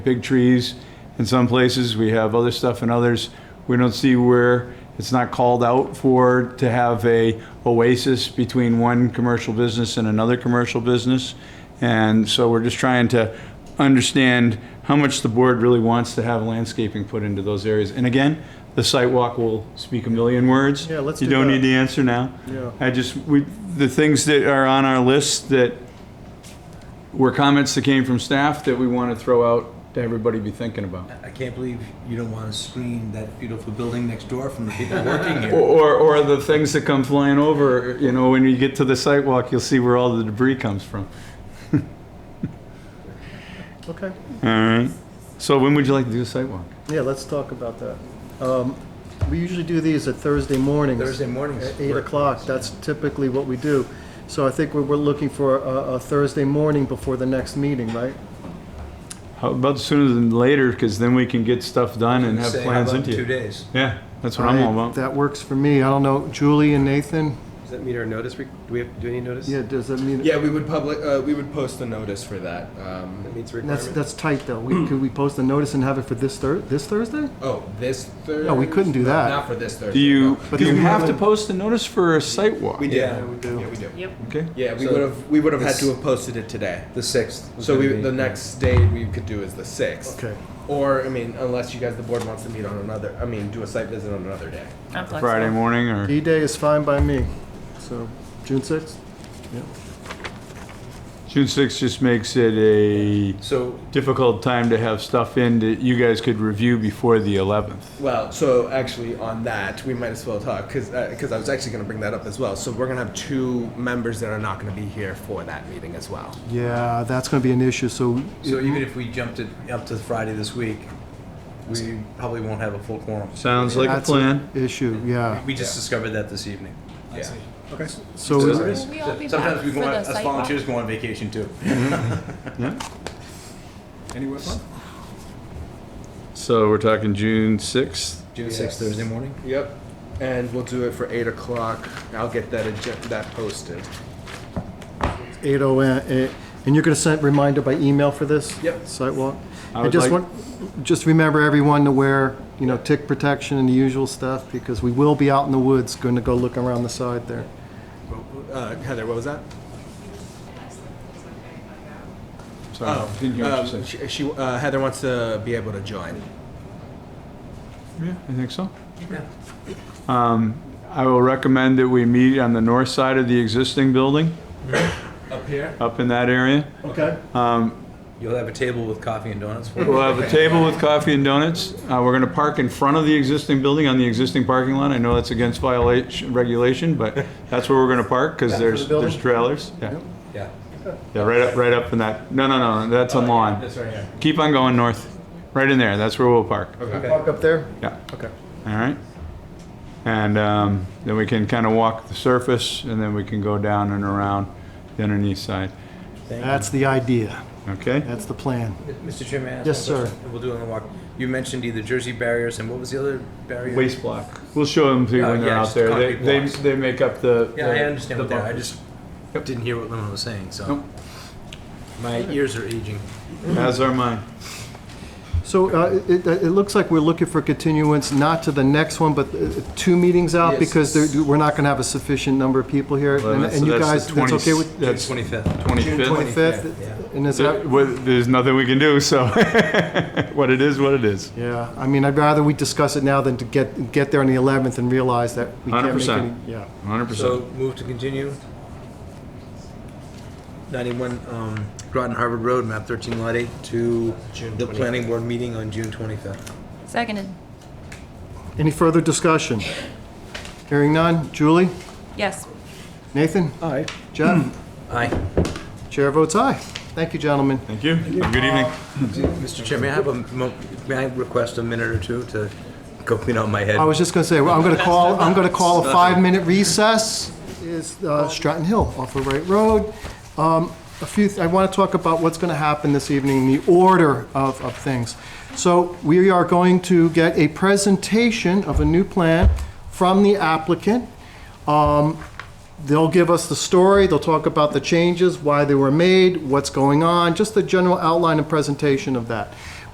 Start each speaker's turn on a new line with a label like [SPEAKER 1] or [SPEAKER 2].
[SPEAKER 1] big trees in some places, we have other stuff in others. We don't see where it's not called out for to have a oasis between one commercial business and another commercial business. And so we're just trying to understand how much the board really wants to have landscaping put into those areas. And again, the site walk will speak a million words.
[SPEAKER 2] Yeah, let's
[SPEAKER 1] You
[SPEAKER 2] do
[SPEAKER 1] don't
[SPEAKER 2] that.
[SPEAKER 1] need the answer now.
[SPEAKER 2] Yeah.
[SPEAKER 1] I just, we, the things that are on our list that were comments that came from staff that we want to throw out to everybody be thinking about.
[SPEAKER 3] I can't believe you don't want to screen that beautiful building next door from the people working here.
[SPEAKER 1] Or, or the things that come flying over, you know, when you get to the sidewalk, you'll see where all the debris comes from.
[SPEAKER 2] Okay,
[SPEAKER 1] All right. So when would you like to do the sidewalk?
[SPEAKER 2] yeah, let's talk about that. Um, We usually do these at Thursday mornings.
[SPEAKER 3] Thursday mornings.
[SPEAKER 2] At eight o'clock, that's typically what we do. So I think we're, we're looking for a, a Thursday morning before the next meeting, right?
[SPEAKER 1] How about sooner than later, because then we can get stuff done and have
[SPEAKER 3] Say, how
[SPEAKER 1] plans
[SPEAKER 3] about
[SPEAKER 1] into
[SPEAKER 3] Two
[SPEAKER 1] you.
[SPEAKER 3] days.
[SPEAKER 1] Yeah, that's what I'm all about.
[SPEAKER 2] That works for me, I don't know, Julie and Nathan?
[SPEAKER 4] Does that meet our notice? re- Do we have, do we need notice?
[SPEAKER 2] Yeah, does that mean?
[SPEAKER 5] Yeah, we would public, uh, we would post a notice for that.
[SPEAKER 4] That
[SPEAKER 5] Um,
[SPEAKER 4] meets
[SPEAKER 2] That's,
[SPEAKER 4] requirement?
[SPEAKER 2] that's tight, though. We, could we post a notice and have it for this Thur, this Thursday?
[SPEAKER 5] oh, this Thursday?
[SPEAKER 2] No, we couldn't do
[SPEAKER 5] No,
[SPEAKER 2] that.
[SPEAKER 5] Not for this Thursday.
[SPEAKER 1] Do you,
[SPEAKER 5] no.
[SPEAKER 2] But
[SPEAKER 1] do you
[SPEAKER 2] then we
[SPEAKER 1] have to
[SPEAKER 2] haven't-
[SPEAKER 1] post a notice for a sidewalk?
[SPEAKER 5] We do.
[SPEAKER 3] Yeah,
[SPEAKER 5] Yeah,
[SPEAKER 3] we
[SPEAKER 5] we
[SPEAKER 2] do.
[SPEAKER 5] do.
[SPEAKER 6] Yep.
[SPEAKER 1] Okay.
[SPEAKER 5] Yeah, we
[SPEAKER 3] So
[SPEAKER 5] would have, we would have had
[SPEAKER 3] this-
[SPEAKER 5] to have posted it today.
[SPEAKER 3] The sixth. was
[SPEAKER 5] So
[SPEAKER 3] gonna
[SPEAKER 5] we,
[SPEAKER 3] be-
[SPEAKER 5] the next date we could do is the sixth.
[SPEAKER 2] Okay,
[SPEAKER 5] Or, I mean, unless you guys, the board wants to meet on another, I mean, do a site visit on another day.
[SPEAKER 6] I'm flexible.
[SPEAKER 1] Friday morning or?
[SPEAKER 2] D-Day is fine by me, so, June sixth?
[SPEAKER 1] June 6th just makes it a
[SPEAKER 5] So,
[SPEAKER 1] difficult time to have stuff in that you guys could review before the 11th.
[SPEAKER 5] well, so actually on that, we might as well talk, cause, uh, 'cause I was actually gonna bring that up as well. So we're gonna have two members that are not gonna be here for that meeting as well.
[SPEAKER 2] Yeah, that's gonna be an issue, so,
[SPEAKER 3] So even if we jumped it up to Friday this week, we probably won't have a full quorum.
[SPEAKER 1] Sounds like a
[SPEAKER 2] that's
[SPEAKER 1] plan.
[SPEAKER 2] an issue, yeah.
[SPEAKER 3] We just discovered that this evening.
[SPEAKER 5] Yeah.
[SPEAKER 2] So.
[SPEAKER 6] Will we all be back
[SPEAKER 3] Sometimes
[SPEAKER 6] for
[SPEAKER 3] we go, on-
[SPEAKER 6] the
[SPEAKER 3] us
[SPEAKER 6] sidewalk?
[SPEAKER 3] volunteers go on vacation too.
[SPEAKER 1] Mm-hmm.
[SPEAKER 5] Anywhere fun?
[SPEAKER 1] So we're talking June 6th.
[SPEAKER 5] June
[SPEAKER 3] Sixth, Thursday morning?
[SPEAKER 5] Yep, and we'll do it for eight o'clock. I'll get that agen- that posted.
[SPEAKER 2] 8:08, and you're going to send reminder by email for this?
[SPEAKER 5] Yep.
[SPEAKER 2] Sidewalk?
[SPEAKER 1] I
[SPEAKER 2] I
[SPEAKER 1] would
[SPEAKER 2] just
[SPEAKER 1] like-
[SPEAKER 2] want, just remember everyone to wear, you know, tick protection and the usual stuff, because we will be out in the woods, going to go look around the side there.
[SPEAKER 5] Uh, Heather, what was that?
[SPEAKER 1] Sorry, Oh, didn't hear what you
[SPEAKER 5] um,
[SPEAKER 1] said.
[SPEAKER 5] she, she uh, Heather wants to be able to join.
[SPEAKER 1] Yeah, I think so. Um, I will recommend that we meet on the north side of the existing building,
[SPEAKER 5] Up here.
[SPEAKER 1] up in that area.
[SPEAKER 2] Okay.
[SPEAKER 3] You'll have a table with coffee and donuts. for
[SPEAKER 1] We'll have a table with coffee and donuts. Uh, We're going to park in front of the existing building on the existing parking lot. I know that's against violation, regulation, but that's where we're going to park because there's,
[SPEAKER 2] building?
[SPEAKER 1] there's trailers. Yeah,
[SPEAKER 3] Yeah.
[SPEAKER 1] yeah, right up, right up in that, no, no, no, that's on lawn.
[SPEAKER 3] That's right here.
[SPEAKER 1] Keep on going north, right in there, that's where we'll park.
[SPEAKER 2] Park up there?
[SPEAKER 1] Yeah,
[SPEAKER 2] Okay.
[SPEAKER 1] all right. And um, then we can kind of walk the surface, and then we can go down and around the underneath side,
[SPEAKER 2] That's the idea.
[SPEAKER 1] okay?
[SPEAKER 2] That's the plan.
[SPEAKER 3] Mr. Chairman? I ask
[SPEAKER 2] Yes, sir.
[SPEAKER 3] one question? We'll do it on the walk. You mentioned either Jersey barriers and what was the other barrier?
[SPEAKER 1] Waste block. We'll show them to you
[SPEAKER 3] Oh,
[SPEAKER 1] when they're
[SPEAKER 3] yeah,
[SPEAKER 1] out
[SPEAKER 3] just
[SPEAKER 1] there. They,
[SPEAKER 3] concrete
[SPEAKER 1] they
[SPEAKER 3] blocks.
[SPEAKER 1] they make up the.
[SPEAKER 3] Yeah, I
[SPEAKER 1] the-
[SPEAKER 3] understand
[SPEAKER 1] the
[SPEAKER 3] what that, I
[SPEAKER 1] bumpers.
[SPEAKER 3] just didn't hear what Lemon was saying,
[SPEAKER 1] Nope.
[SPEAKER 3] so. My ears are aging.
[SPEAKER 1] As are mine.
[SPEAKER 2] So uh, it, it it looks like we're looking for continuance, not to the next one, but uh, two meetings out,
[SPEAKER 5] Yes.
[SPEAKER 2] because there- we're not going to have a sufficient number of people here.
[SPEAKER 1] Well,
[SPEAKER 2] And
[SPEAKER 1] that's-
[SPEAKER 2] and you
[SPEAKER 1] that's the
[SPEAKER 2] guys, that's
[SPEAKER 1] 20
[SPEAKER 2] okay with?
[SPEAKER 1] That's
[SPEAKER 3] Twenty-fifth.
[SPEAKER 1] 25th.
[SPEAKER 2] 25th?
[SPEAKER 3] yeah.
[SPEAKER 2] And is that?
[SPEAKER 1] There- well, There's nothing we can do, so what it is, what it is.
[SPEAKER 2] Yeah, I mean, I'd rather we discuss it now than to get, get there on the 11th and realize that we can't make
[SPEAKER 1] 100%.
[SPEAKER 2] any. Yeah,
[SPEAKER 1] 100%.
[SPEAKER 3] So move to continue. Ninety-one, um, Groton Harvard Road, map thirteen lot eight, to the planning board meeting on June twenty-fifth.
[SPEAKER 6] Seconded.
[SPEAKER 2] Any further discussion? Hearing none. Julie?
[SPEAKER 6] Yes.
[SPEAKER 2] Nathan? Aye. Jeff?
[SPEAKER 3] Aye.
[SPEAKER 2] Chair votes aye. Thank you, gentlemen.
[SPEAKER 1] Thank you. Have a Good evening.
[SPEAKER 3] Mr. Chairman, I have a, mo- may I request a minute or two to go clean out my head?
[SPEAKER 2] I was just going to say, well, I'm going to call, I'm going to call a five-minute recess. Is uh, Stratton Hill off of Wright Road. Um, A few, I want to talk about what's going to happen this evening, the order of, of things. So we are going to get a presentation of a new plan from the applicant. Um, They'll give us the story, they'll talk about the changes, why they were made, what's going on, just the general outline and presentation of that.